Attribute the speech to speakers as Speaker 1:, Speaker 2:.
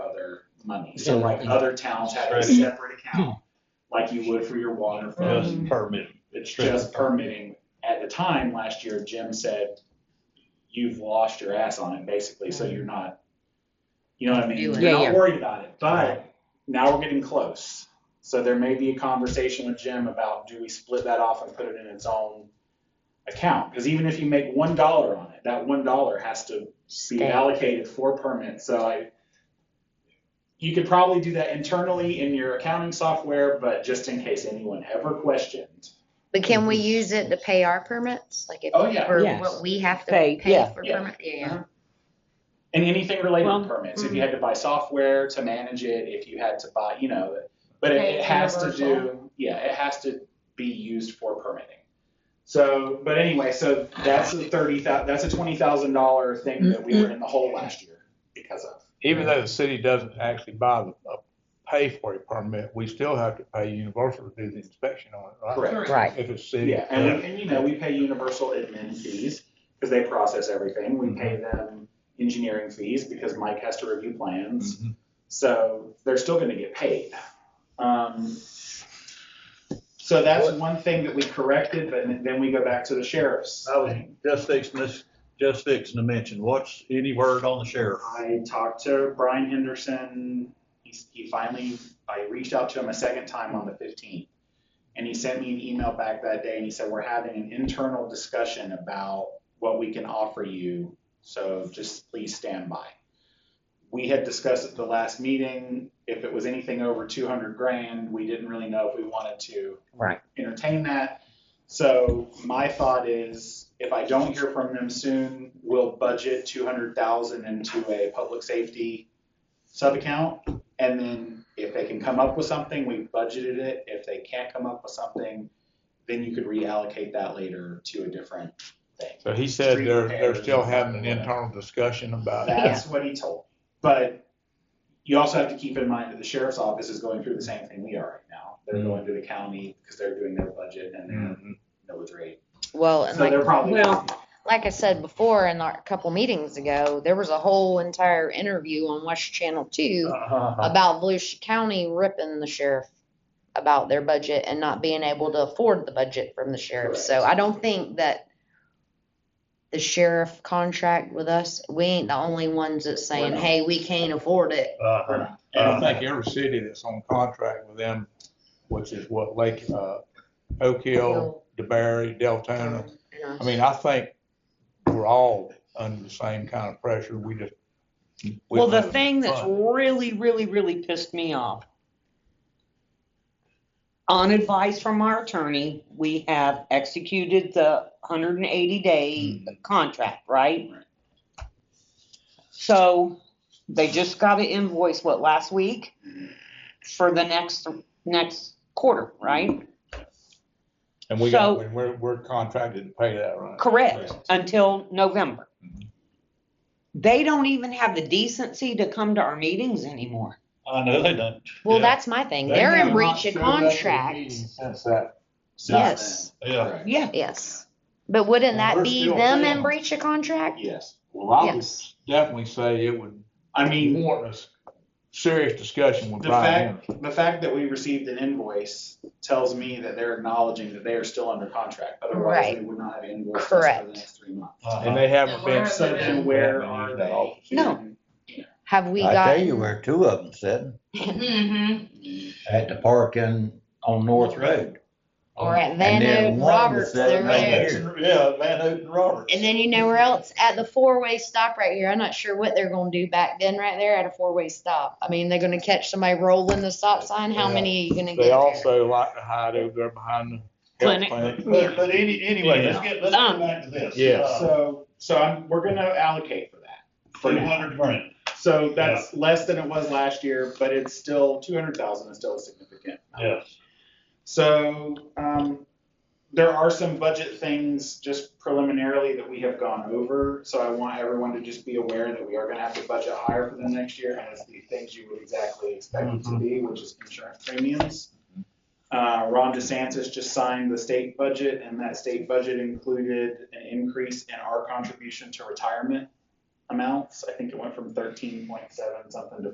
Speaker 1: money. So like other towns have a
Speaker 2: Right.
Speaker 1: separate account, like you would for your water fund.
Speaker 2: Just permit.
Speaker 1: It's just permitting. At the time, last year, Jim said, you've lost your ass on it, basically, so you're not, you know what I mean? You're
Speaker 3: Doing it.
Speaker 4: Yeah,
Speaker 1: not
Speaker 4: yeah.
Speaker 1: worried about it, but now we're getting close. So there may be a conversation with Jim about, do we split that off and put it in its own account? Because even if you make one dollar on it, that one dollar has to be
Speaker 4: Stay.
Speaker 1: allocated for permits, so I, you could probably do that internally in your accounting software, but just in case anyone ever questioned.
Speaker 3: But can we use it to pay our permits? Like if,
Speaker 1: Oh, yeah.
Speaker 3: for
Speaker 4: Yes.
Speaker 3: what we have to
Speaker 4: Pay,
Speaker 3: pay
Speaker 4: yeah.
Speaker 3: for
Speaker 1: Yeah. Uh-huh.
Speaker 3: permit? Yeah.
Speaker 1: And anything related
Speaker 4: Well,
Speaker 1: to permits,
Speaker 5: mm-hmm.
Speaker 1: if you had to buy software to manage it, if you had to buy, you know, but it,
Speaker 5: Okay,
Speaker 1: it has to do,
Speaker 5: universal.
Speaker 1: yeah, it has to be used for permitting. So, but anyway, so that's a thirty thou, that's a twenty thousand dollar thing that we were in the hole last year because of.
Speaker 2: Even though the city doesn't actually buy the, uh, pay for a permit, we still have to pay Universal to do the inspection on it, right?
Speaker 1: Correct.
Speaker 4: Right.
Speaker 2: If it's city.
Speaker 1: Yeah, and, we- and you know, we pay universal admin fees because they process everything. We pay them engineering fees because Mike has to review plans.
Speaker 2: Mhm.
Speaker 1: So they're still gonna get paid. Um, so that's one thing that we corrected, but then we go back to the sheriff's.
Speaker 6: I was just fixing this, just fixing to mention, what's any word on the sheriff?
Speaker 1: I talked to Brian Henderson, he, he finally, I reached out to him a second time on the fifteenth. And he sent me an email back that day and he said, we're having an internal discussion about what we can offer you, so just please stand by. We had discussed at the last meeting, if it was anything over two hundred grand, we didn't really know if we wanted to
Speaker 4: Right.
Speaker 1: entertain that. So my thought is, if I don't hear from them soon, we'll budget two hundred thousand into a public safety sub-account. And then if they can come up with something, we budgeted it. If they can't come up with something, then you could reallocate that later to a different thing.
Speaker 2: So he said
Speaker 1: Street
Speaker 2: they're, they're
Speaker 1: repairs
Speaker 2: still
Speaker 1: and
Speaker 2: having an
Speaker 1: whatever.
Speaker 2: internal discussion about it.
Speaker 1: That's what he told. me. But you also have to keep in mind that the sheriff's office is going through the same thing we are right now. They're
Speaker 2: Mhm.
Speaker 1: going to the county because they're doing their budget and their
Speaker 2: Mhm.
Speaker 1: millage rate.
Speaker 3: Well, and
Speaker 1: So
Speaker 3: like,
Speaker 1: they're probably.
Speaker 4: Well,
Speaker 3: like I said before, in our a couple meetings ago, there was a whole entire interview on West Channel Two
Speaker 2: Uh-huh.
Speaker 3: about Volusia County ripping the sheriff about their budget and not being able to afford the budget from the sheriff. So I don't think that the sheriff contract with us, we ain't the only ones that's saying,
Speaker 1: not.
Speaker 3: hey, we can't afford it.
Speaker 6: Uh,
Speaker 2: And I think every city that's on contract with them, which is what Lake, uh, Oak Hill, DeBerry, Deltona,
Speaker 3: Yeah.
Speaker 2: I mean, I think we're all under the same kind of pressure. We just. we
Speaker 4: Well, the
Speaker 2: don't
Speaker 4: thing that's
Speaker 2: fund.
Speaker 4: really, really, really pissed me off. On advice from our attorney, we have executed the hundred and eighty day contract, right?
Speaker 1: Right.
Speaker 4: So they just got an invoice, what, last week? For the next, next quarter, right?
Speaker 2: And we got,
Speaker 4: so-
Speaker 2: we're, we're contracted to pay that, right?
Speaker 4: Correct, until November. They don't even have the decency to come to our meetings anymore.
Speaker 6: I know they don't.
Speaker 3: Well,
Speaker 6: Yeah.
Speaker 3: that's my thing. They're in breach of contract.
Speaker 2: Since that,
Speaker 1: Since
Speaker 3: Yes.
Speaker 1: then.
Speaker 6: Yeah.
Speaker 1: Correct.
Speaker 4: Yeah,
Speaker 3: Yes. But wouldn't
Speaker 2: And
Speaker 3: that
Speaker 2: we're
Speaker 3: be
Speaker 2: still
Speaker 3: them
Speaker 2: paying.
Speaker 3: in breach of contract?
Speaker 1: Yes.
Speaker 2: well, I would
Speaker 3: Yes.
Speaker 2: definitely say it would
Speaker 1: I mean,
Speaker 2: warrant us serious discussion with
Speaker 1: The
Speaker 2: Brian. Henderson.
Speaker 1: the fact that we received an invoice tells me that they're acknowledging that they are still under contract. Otherwise,
Speaker 3: Right.
Speaker 1: we would not have invoiced us for
Speaker 3: Correct.
Speaker 1: the next three months.
Speaker 6: Uh-huh.
Speaker 2: And they haven't
Speaker 5: Yeah,
Speaker 2: been.
Speaker 5: we're-
Speaker 1: So then where are they?
Speaker 4: No.
Speaker 3: Have we
Speaker 7: I tell you
Speaker 3: gotten?
Speaker 7: where two of them sitting,
Speaker 5: Mm-hmm.
Speaker 7: at the park in, on North Road.
Speaker 3: Or at Van
Speaker 7: And then
Speaker 3: Norden
Speaker 7: one was
Speaker 3: Roberts,
Speaker 7: sitting
Speaker 3: they're
Speaker 7: over
Speaker 3: there.
Speaker 7: here.
Speaker 6: Yeah, Van Houten Roberts.
Speaker 3: And then you know where else? At the four-way stop right here. I'm not sure what they're gonna do back then right there at a four-way stop. I mean, they're gonna catch somebody rolling the stop sign. How
Speaker 2: Yeah.
Speaker 3: many are you gonna get
Speaker 2: They
Speaker 3: there?
Speaker 2: also like to hide over there behind the health
Speaker 4: Clinic.
Speaker 2: clinic.
Speaker 6: But, but any, anyway, let's
Speaker 1: Yeah.
Speaker 6: get, let's get
Speaker 4: Um,
Speaker 6: back to this.
Speaker 2: Yes.
Speaker 1: Uh, So, so I'm, we're gonna allocate for that. for
Speaker 6: Two
Speaker 1: now.
Speaker 6: hundred grand.
Speaker 1: So that's less than it was last year, but it's still, two hundred thousand is still a significant. amount.
Speaker 6: Yes.
Speaker 1: So, um, there are some budget things just preliminarily that we have gone over, so I want everyone to just be aware that we are gonna have to budget higher for the next year, and it's the things you would exactly expect it to be, which is insurance premiums. Uh, Ron DeSantis just signed the state budget, and that state budget included an increase in our contribution to retirement amounts. I think it went from thirteen point seven something to